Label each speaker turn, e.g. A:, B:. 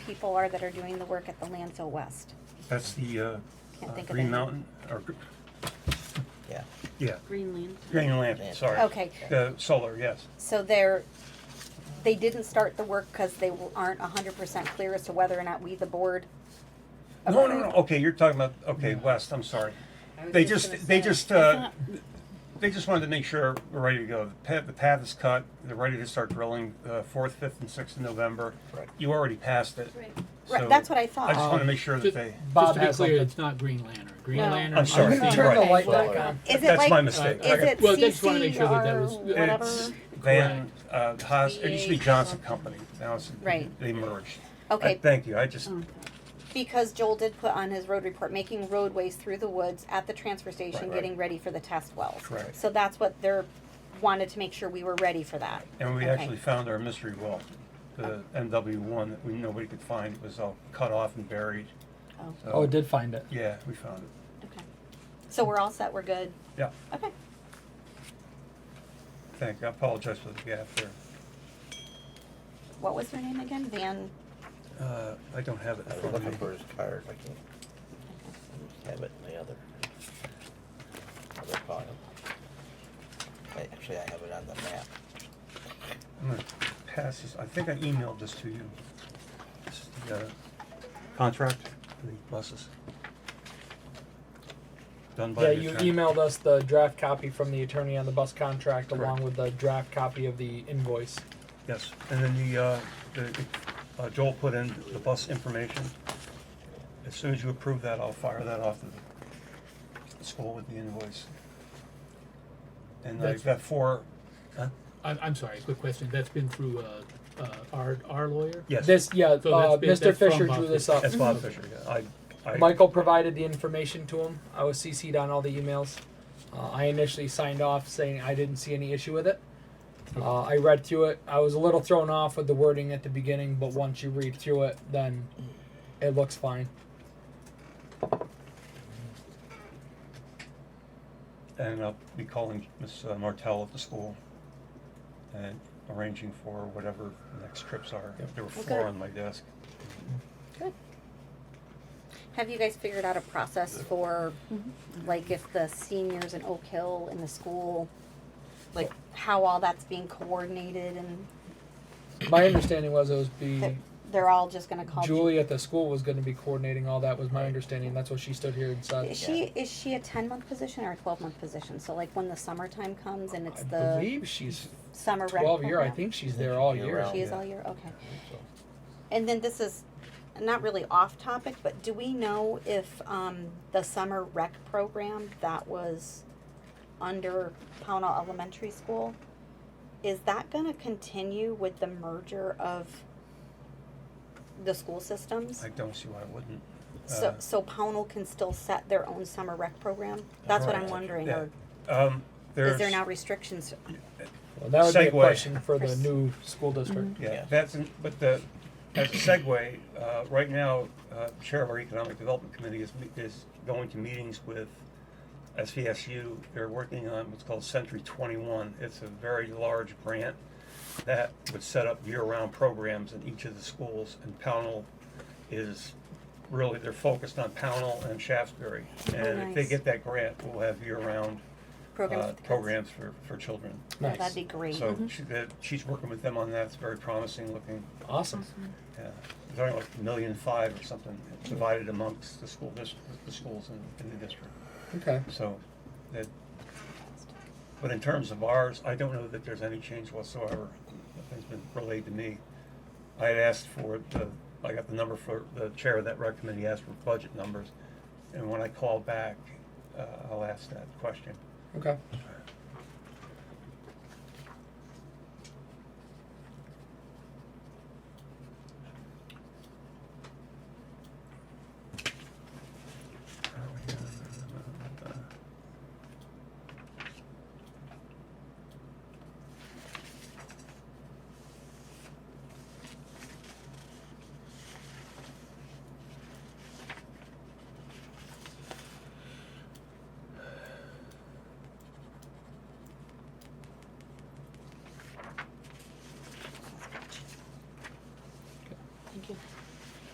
A: people are that are doing the work at the Lanzo West.
B: That's the uh,
A: Can't
B: uh,
A: think of
B: Green
A: it.
B: Mountain, or, gr-
C: Yeah.
B: yeah,
D: Greenland.
B: Green Lantern, sorry.
A: Okay.
B: The solar, yes.
A: So they're, they didn't start the work because they aren't hundred percent clear as to whether or not we, the board.
B: No, no, no, okay, you're talking about, okay, West, I'm sorry.
D: I was
B: They
D: just
B: just,
D: gonna
B: they
D: say.
B: just, uh, they just wanted to make sure we're ready to go. The path, the path is cut, they're ready to start drilling, uh, fourth, fifth, and sixth of November.
C: Right.
B: You already passed it.
D: Right.
A: Right,
B: Oh, so
A: that's what I
B: I just
A: thought.
B: wanna make sure that
E: Just
B: they,
E: just
F: Bob
E: to be
F: has
E: clear,
F: something.
E: it's not Green Lantern. Green
D: No.
E: Lantern.
B: I'm sorry.
C: I'm gonna turn the
A: Right.
C: light back
F: Okay.
C: on.
A: Is it
B: that's my
A: like, is
B: mistake. I got-
A: it
E: Well, I just wanted to make
A: CC
E: sure that that was-
A: or whatever?
B: It's Van, uh, Haas, it used to be
D: VA
B: Johnson
D: something.
B: Company, now it's,
A: Right.
B: they merged. I-
A: Okay, Um,
B: Thank you, I just,
A: because Joel did put on his road report, making roadways through the woods at the transfer
B: Right,
A: station,
B: right.
A: getting ready for the test wells.
B: Correct.
A: So that's what they're, wanted to make sure we were ready for that.
B: And we
A: Okay.
B: actually found our mystery well, the MW one that we, nobody could find, it was all cut off and buried.
A: Oh,
B: So,
F: Oh, it did find it.
B: Yeah, we found it,
A: okay. So we're all set, we're good?
B: yeah,
A: Okay,
B: thank you, I apologize for the gap there.
A: what was her name again? Van?
B: Uh, I don't have it
C: I
B: in
C: was
B: front
C: looking
B: of me.
C: for his card, I can't have it in the other, other file. I, actually, I have it on the map.
B: I'm gonna pass this, I think I emailed this to you. This is the, uh, contract for the buses. Done by
F: Yeah,
B: the
F: you
B: attorney.
F: emailed us the draft copy from the attorney on the bus contract along
B: Correct.
F: with the draft copy of the invoice.
B: Yes, and then the, uh, the, uh, Joel put in the bus information. As soon as you approve that, I'll fire that off to the school with the invoice. And I've
E: That's-
B: got four, huh?
E: I'm, I'm sorry, quick question. That's been through, uh, uh, our, our lawyer?
B: Yes,
F: This, yeah,
E: So
F: uh,
E: that's Mm-hmm. been-
F: Mr.
E: that's from
F: Fisher
E: Bob
F: drew this
E: Fisher.
F: up.
B: that's Bob Fisher, yeah, I, I.
F: Michael provided the information to him. I was CC'd on all the emails. Uh, I initially signed off saying I didn't see any issue with it. Uh, I read through it. I was a little thrown off with the wording at the beginning, but once you read through it, then it looks fine.
B: And I'll be calling Ms. uh, Martell at the school and arranging for whatever the next trips are. There were four
A: Okay.
B: on my desk.
A: Good. Have you guys figured out a process for, like, if the seniors in Oak Hill in the school, like, how all that's being coordinated and
F: My understanding was it was be
A: that they're all just gonna call? Ju-
F: Julie at the school was going to be coordinating all that. Was my understanding. That's what she stood here and
A: Is
F: said.
A: she, is she a ten-month position or a twelve-month position? So like, when the summertime comes and it's
F: I
A: the
F: believe she's
A: summer rec
F: twelve year. I
A: program?
F: think she's there all
C: Year
F: year.
C: round.
A: She is
C: yeah.
A: all year, okay.
C: So,
A: And then this is not really off topic, but do we know if um, the summer rec program that was under Pownell Elementary School, is that going to continue with the merger of the school systems?
B: I don't see why I wouldn't.
A: so,
B: Uh,
A: so Pownell can still set their own summer rec program? That's what I'm
B: Correct.
A: wondering.
B: Yeah.
A: Or
B: Um, there's.
A: is there now restrictions?
F: Well, that would be
B: Segue.
F: a question for the
A: Pers-
F: new school district.
B: Yeah,
C: Yeah.
B: that's, in- but the, as a segue, uh, right now, uh, Chair of our Economic Development Committee is, me- is going to meetings with SVSU. They're working on what's called Century Twenty-One. It's a very large grant that would set up year-round programs in each of the schools. And Pownell is, really, they're focused on Pownell and Shaftesbury. And
A: Oh,
B: if they
A: nice.
B: get that grant, we'll have year-round,
A: Programs?
B: uh,
A: with kids?
B: programs for, for children.
A: Yeah,
F: Nice.
A: that'd be great. Mm-hmm.
B: So she, that, she's working with them on that. It's very promising looking.
F: Awesome.
B: Yeah, it's only like a million five or something divided amongst the school district, the schools in, in the district.
F: Okay.
B: So that, but in terms of ours, I don't know that there's any change whatsoever. Nothing's been relayed to me. I had asked for the, I got the number for, the chair of that rec committee asked for budget numbers. And when I call back, uh, I'll ask that question.
F: Okay.